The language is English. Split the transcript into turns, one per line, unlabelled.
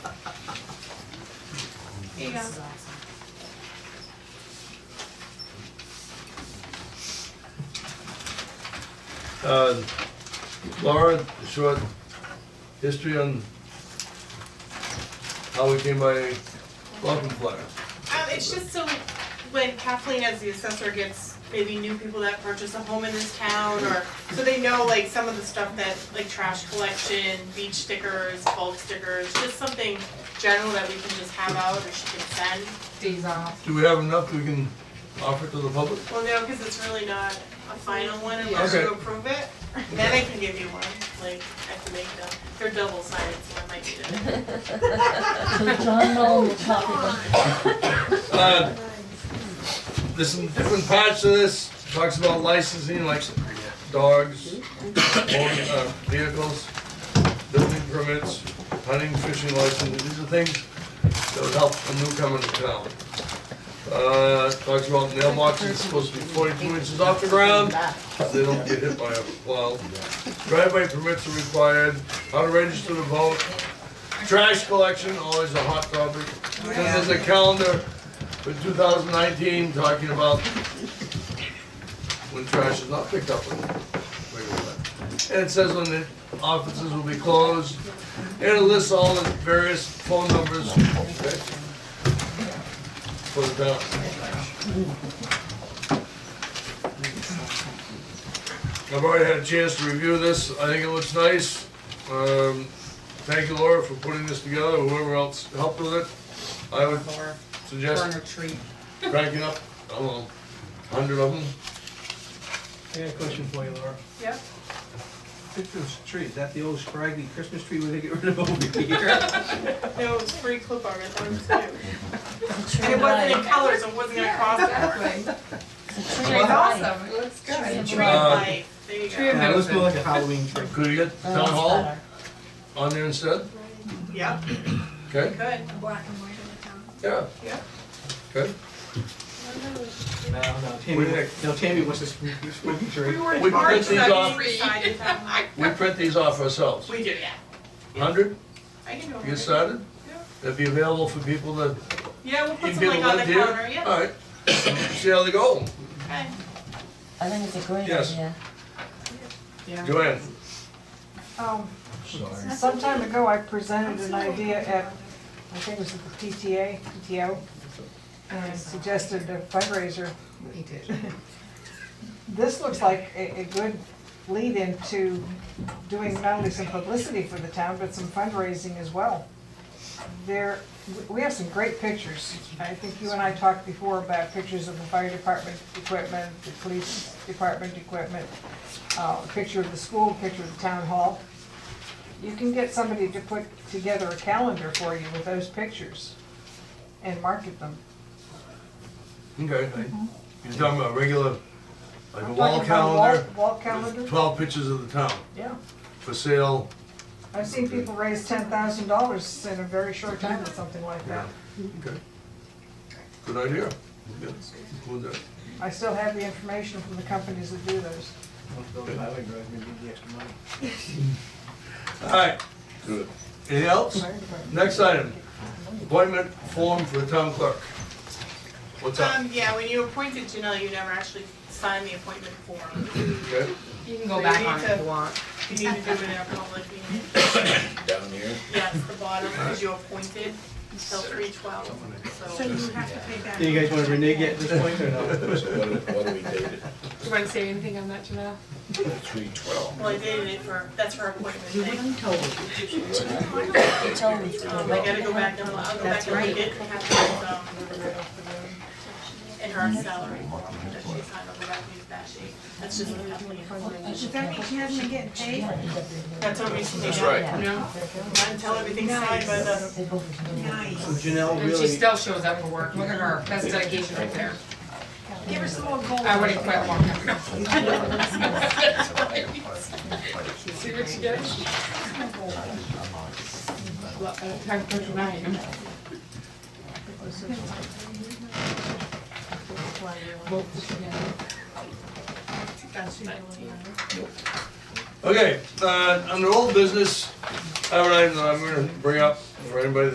Here you go.
Uh, Laura, short history on how we came by welcome flyers.
Um, it's just so when Kathleen as the assessor gets maybe new people that purchase a home in this town or, so they know like some of the stuff that, like trash collection, beach stickers, bulk stickers, just something general that we can just have out or she can send.
Days off.
Do we have enough we can offer to the public?
Well, no, cause it's really not a final one unless
Okay.
you approve it. Then I can give you one, like, I have to make them, they're double sided, so I might need it.
So John Mullen will copy them.
Uh, There's some different parts to this, talks about licensing, like dogs, motor- uh, vehicles, building permits, hunting, fishing license, these are things that would help a newcomer to town. Uh, Talks about mailboxes, it's supposed to be forty-two inches off the ground, so they don't get hit by a plow. Driveway permits are required, how to register to vote, trash collection, always a hot topic. Then there's a calendar for 2019, talking about when trash is not picked up. on regular way. And it says when the offices will be closed, and it lists all the various phone numbers for the town. I've already had a chance to review this, I think it looks nice. Um, Thank you Laura for putting this together, whoever else helped with it. I would
Or
suggest
a treat.
cranking up, I don't know, hundred of them.
I got a question for you, Laura.
Yep.
Christmas tree, is that the old scraggly Christmas tree where they get rid of over here?
No, it was free clip art, I thought it was new.
It's a tree
And it
of
wasn't in
life.
colors, it wasn't gonna cost that.
It's a tree
It's
of life.
awesome, it looks good.
Tree of
Tree
life.
of
Uh,
life, there you
Tree
go.
of-
Yeah, let's do like a Halloween tree.
Could you get
That's
town hall
better.
on there instead?
Yep,
Okay,
good.
black and white of the town.
yeah.
Yeah.
Okay.
No, no, Tammy, no, Tammy wants a spooky, spooky tree.
We were
We
in
print
March,
these
that
off.
we decided that.
We print these off ourselves.
We do, yeah.
Hundred,
I can do
you get
it.
started? That'd be available for people that,
Yeah, we'll put
if
some
people
like on
live
the
here.
counter, yeah.
Alright, see how they go.
Okay.
I think it's a great
Yes.
idea.
Joanne,
Um,
sorry.
some time ago, I presented an idea at, I think it was at the PTA, PTO, and suggested a fundraiser.
He did.
This looks like a, a good lead into doing not only some publicity for the town, but some fundraising as well. There, we- we have some great pictures. I think you and I talked before about pictures of the fire department equipment, the police department equipment, uh, a picture of the school, a picture of the town hall. You can get somebody to put together a calendar for you with those pictures and market them.
Okay, I- you're talking about regular, like a
I'm
wall
talking about a wall-
calendar,
Wall
with
calendar,
twelve pictures of the town,
yeah.
for sale.
I've seen people raise ten thousand dollars in a very short time with something like that.
Okay. Good idea. Yeah, include that.
I still have the information from the companies that do those.
Those highway drives, maybe get the extra money.
Alright. Anything else?
Fire department.
Next item, appointment form for the town clerk. What's up?
Um, yeah, when you appointed Janelle, you never actually signed the appointment form.
Okay.
You can go back on it if you want.
You need to do it in a public meeting.
down here.
Yes, the bottom, because you appointed until three twelve,
So
so.
you have to pay back.
Do you guys wanna renege at this point or no?
So What do- what do we date it?
Do you wanna say anything on that, Janelle?
Three twelve.
Well, I dated it for, that's her appointment thing.
He told me to.
Um, I gotta go back and, I'll go back
That's
and read
right.
it and have it, um, in her salary that she signed over back in that sheet. That's just what happened.
Does that mean she hasn't been getting paid?
That's what we should do.
That's right.
No?
Until everything's signed by the,
They both do.
Nice.
So Janelle
And she
really,
still shows up for work, look at her, that's dedication right there.
Give her some more gold.
I wouldn't quit long enough. See what she gets? Well, uh, Time for tonight.
Okay, uh, under old business, I have an item that I'm gonna bring up for anybody